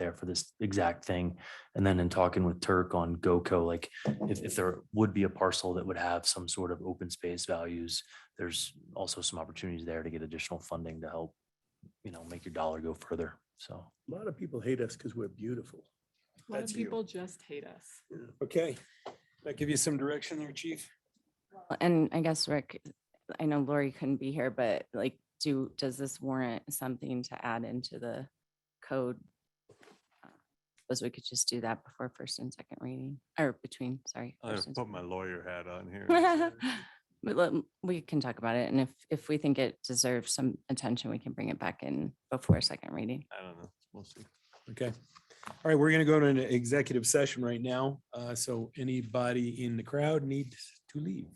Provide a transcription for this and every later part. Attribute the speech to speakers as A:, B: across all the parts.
A: there for this exact thing. And then in talking with Turk on GoCo, like if, if there would be a parcel that would have some sort of open space values, there's also some opportunities there to get additional funding to help, you know, make your dollar go further. So.
B: A lot of people hate us because we're beautiful.
C: A lot of
D: That's you.
C: people just hate us.
D: Okay, that give you some direction there, chief?
E: Uh, And I guess Rick, I know Lori couldn't be here, but like, do, does this warrant something to add into the code? Uh, Suppose we could just do that before first and second reading, or between, sorry.
F: I
E: first and
F: put my lawyer hat on here.
E: second. But let, we can talk about it, and if, if we think it deserves some attention, we can bring it back in before second reading.
F: I don't know. We'll see.
D: Okay. All right, we're gonna go to an executive session right now. Uh, so anybody in the crowd need to leave?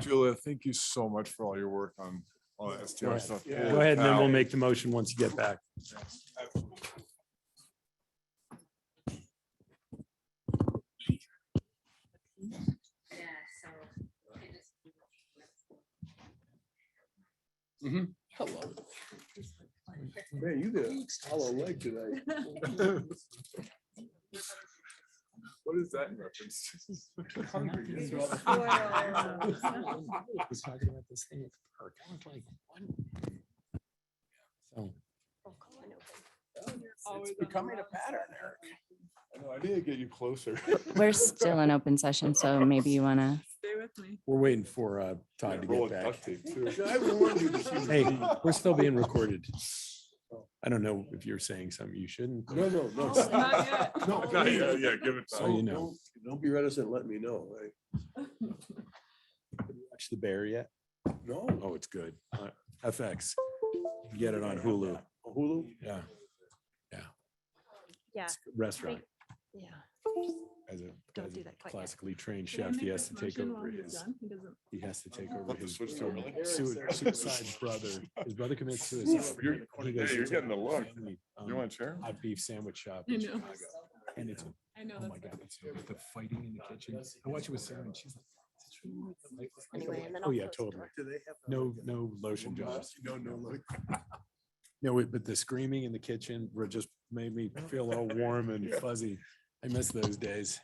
G: Julia, thank you so much for all your work on all that
D: Go
G: STR
D: ahead,
G: stuff.
D: Go ahead, and then we'll make the motion once you get back.
B: Hello. Man, you did a hollow leg today.
G: What is that in reference?
D: was talking about this thing at the park. I was like, what? So,
C: Always
D: It's
C: on the
D: becoming a
C: wrong
D: pattern,
C: side.
D: Eric.
G: I need to get you closer.
E: We're still in open session, so maybe you want to,
C: Stay with me.
D: We're waiting for uh, Todd to get back. Hey, we're still being recorded. I don't know if you're saying something you shouldn't.
B: No, no, no.
G: Oh.
C: Not yet.
G: No, no, yeah, yeah, give it.
D: So
G: time.
D: you
B: Don't-
D: know,
B: don't- Don't be reticent, let me know. eh?
D: watch The Bear yet?
B: No.
D: Oh, it's good. Uh, FX. Get it on Hulu.
G: Oh,
B: Hulu?
D: Yeah. Yeah.
H: Yeah.
D: It's a Restaurant.
H: Yeah.
D: As a
H: Don't
D: as
H: do
D: a
H: that quite yet.
D: classically trained
C: Can I
D: chef, he
C: make
D: has
C: this
D: to take
C: motion while
D: over
C: he's
D: his,
C: done? He doesn't-
D: he has to take over
G: Let the
D: his
G: switch to
D: uh,
G: early.
D: sui- suicide brother. His brother commits suicide.
G: You're-
D: He goes
G: hey, you're
D: into
G: getting the
D: a
G: look.
D: family,
G: You
D: um,
G: want a chair?
D: Hot beef sandwich shop
C: I
D: in
C: know.
D: Chicago. And it's
C: I know
D: Oh my
C: that's.
D: God, it's with the fighting in the kitchen. I watch it with Sarah and she's like. "Is this really what the life is like?"
H: Anyway,
D: I'm
H: and then
D: like, Oh,
H: I'll
D: yeah,
H: close the
D: totally.
H: door.
B: Do they have?
D: No, no lotion jobs.
B: No, no, no.
D: No, it- but the screaming in the kitchen were just made me feel all warm and
G: Yeah.
D: fuzzy. I miss those days.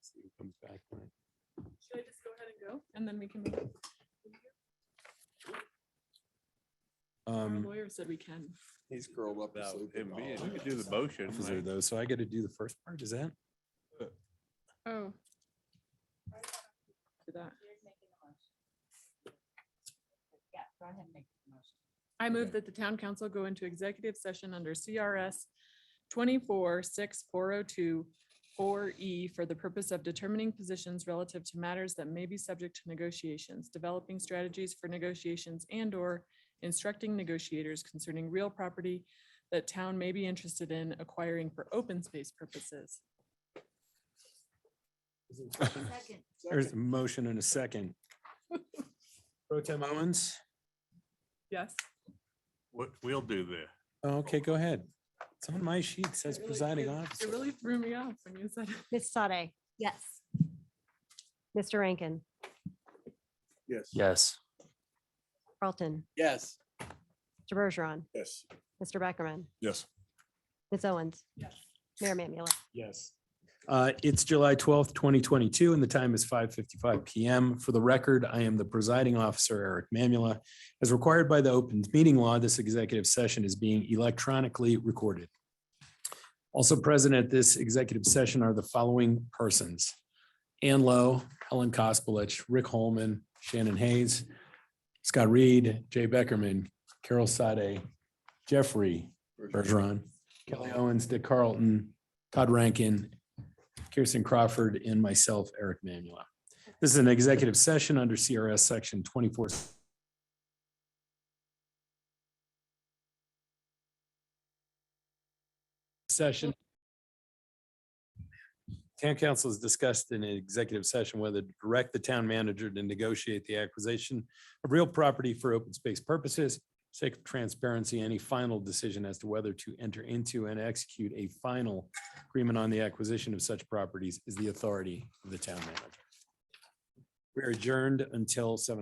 D: See who comes back.
C: Should I just go ahead and go? And then we can. move? Our
D: Um,
C: lawyer said we can.
B: He's curled up.
F: Now,
G: Oh,
F: him being, you could do the motion.
D: those are
F: like,
D: those. So I got to do the first part, is that?
C: Oh. Do that.
E: Yeah, go ahead and make the motion.
C: I move
D: Okay.
C: that the town council go into executive session under CRS twenty-four, six, four oh two, four E for the purpose of determining positions relative to matters that may be subject to negotiations, developing strategies for negotiations and or instructing negotiators concerning real property that town may be interested in acquiring for open space purposes.
D: There's a motion and a second. Pro Tem Owens?
C: Yes.
F: What, we'll do this.
D: Oh, Okay, go ahead. It's on my sheet, it says
C: It really-
D: presiding
C: it-
D: officer.
C: It really threw me off when you said.
H: Ms. Sade? Yes. Mr. Rankin?
B: Yes.
A: Yes.
H: Carlton?
B: Yes.
H: Mr. Bergeron?
B: Yes.
H: Mr. Beckerman?
G: Yes.
H: Ms. Owens?
C: Yes.
H: Mayor Mamula?
D: Yes. Uh, It's July twelfth, twenty twenty-two, and the time is five fifty-five PM. For the record, I am the presiding officer, Eric Mamula. As required by the open meeting law, this executive session is being electronically recorded. Also present at this executive session are the following persons. Ann Lowe, Helen Kospalich, Rick Holman, Shannon Hayes, Scott Reed, Jay Beckerman, Carol Sade, Jeffrey Bergeron, Kelly Owens, Dick Carlton, Todd Rankin, Kirsten Crawford, and myself, Eric Manuel. This is an executive session under CRS Section 24. Session. Town council has discussed in an executive session whether to direct the town manager to negotiate the acquisition of real property for open space purposes sake of transparency, any final decision as to whether to enter into and execute a final agreement on the acquisition of such properties is the authority of the town manager. We're adjourned until seven